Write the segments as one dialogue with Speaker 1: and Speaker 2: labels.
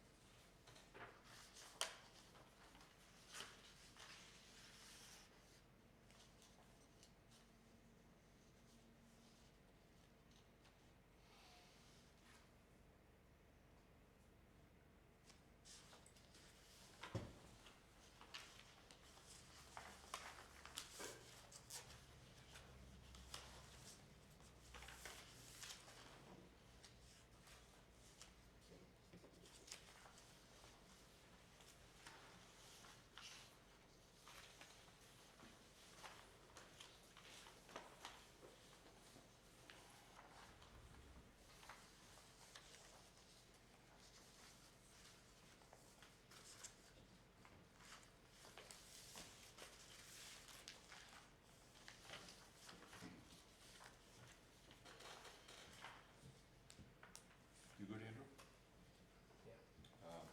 Speaker 1: um, um, uh,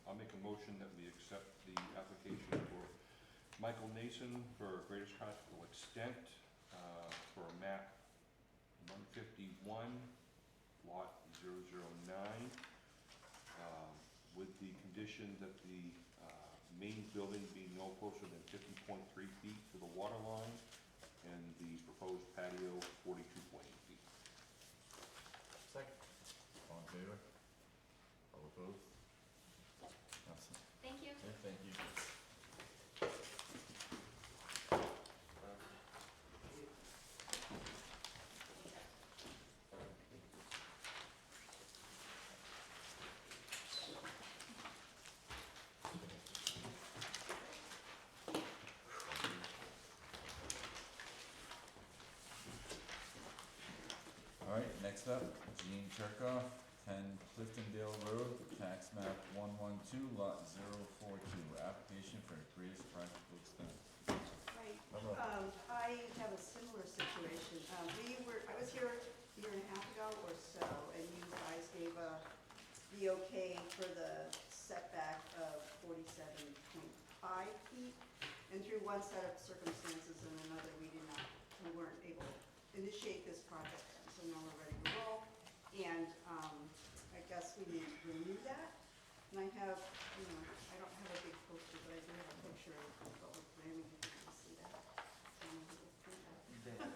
Speaker 2: Uh, motion that we accept the application for Michael Nason for greatest practical extent uh, for a map 151, lot 009, um, with the condition that the uh, main building be no closer than 50.3 feet to the water line and the proposed patio 42.8 feet.
Speaker 3: Second.
Speaker 4: All in favor? All opposed? Awesome.
Speaker 1: Thank you.
Speaker 4: Yeah, thank you. All right, next up, Gene Cherkoff, ten Cliftondale Road, tax map one one two, lot zero four two, application for greatest practical extent.
Speaker 5: Right,
Speaker 4: Hello.
Speaker 5: um, I have a similar situation. Um, we were, I was here a year and a half ago or so, and you guys gave a, the okay for the setback of forty-seven point five feet. And through one set of circumstances and another, we did not, we weren't able to initiate this project, so now we're ready to roll. And, um, I guess we need to renew that. And I have, you know, I don't have a big poster, but I do have a picture of what we're planning, you can see that. Um, we'll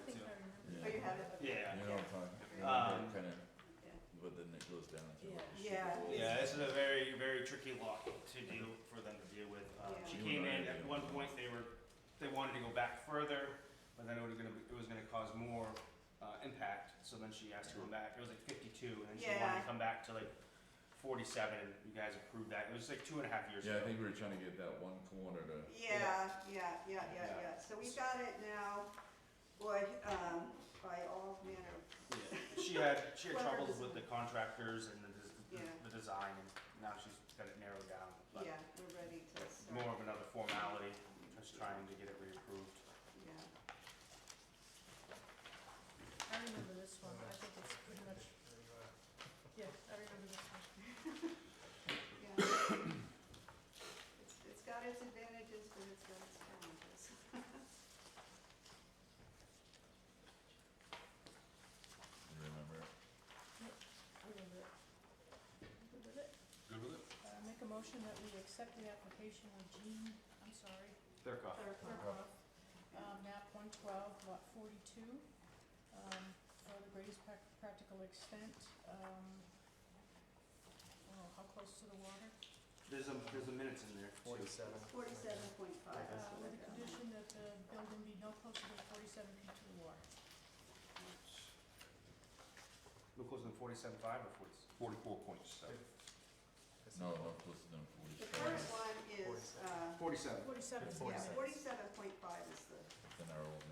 Speaker 5: print that. Oh, you have it?
Speaker 4: You
Speaker 5: Okay.
Speaker 3: Yeah.
Speaker 4: know, what I'm talking- you
Speaker 3: Um,
Speaker 4: know, kind of,
Speaker 5: Yeah.
Speaker 4: but then it goes down to. like, the sugar
Speaker 5: Yeah.
Speaker 4: bowl.
Speaker 3: Yeah, this is a very, very tricky lock to deal, for them to deal with. Uh, She
Speaker 4: Yeah.
Speaker 3: came in, at one point, they were, they wanted to go back further, but then it was gonna, be- it was gonna cause more uh, impact, so then she asked to come back, it was like fifty-two, and then she wanted
Speaker 5: Yeah.
Speaker 3: to come back to like forty-seven, and you guys approved that, it was like two and a half years
Speaker 4: Yeah, I
Speaker 3: ago.
Speaker 4: think we were trying to get that one corner to.
Speaker 5: Yeah, yeah, yeah, yeah, yeah. So we've got it now, boy, um, by all manner of,
Speaker 3: Yeah. She had, she had
Speaker 5: Clever
Speaker 3: troubles with the
Speaker 5: design.
Speaker 3: contractors and the, des-
Speaker 5: Yeah.
Speaker 3: the design, and now she's got it narrowed down. but
Speaker 5: yeah, we're ready to start.
Speaker 3: More of another formality, just trying to get it reapproved.
Speaker 5: Yeah,
Speaker 6: I remember this one, I think it's pretty much, yeah, I remember this one.
Speaker 5: yeah. It's- It's got its advantages, but it's got its challenges.
Speaker 4: You remember it?
Speaker 6: I remember it. Good with it.
Speaker 2: Good with it?
Speaker 6: Uh, Make a motion that we accept the application of Jean, I'm sorry,
Speaker 3: They're coffee.
Speaker 5: They're fun.
Speaker 6: Kirkhoff, uh, map 112, lot 42, um, for the greatest prac- practical extent. um, Oh, how close to the water? Uh,
Speaker 3: There's a, there's a minutes in there. too.
Speaker 7: Forty-seven.
Speaker 5: Forty-seven point five.
Speaker 6: Uh, With the condition that the building be no closer than 47 feet to the water.
Speaker 3: No closer than forty-seven five or forty?
Speaker 2: 44.7.
Speaker 4: No, no, closer than
Speaker 5: The
Speaker 4: forty-five,
Speaker 5: current one is, uh,
Speaker 3: Forty-seven.
Speaker 6: Forty-seven.
Speaker 5: yeah,
Speaker 7: Forty-seven.
Speaker 5: forty-seven point five is the,
Speaker 4: than our old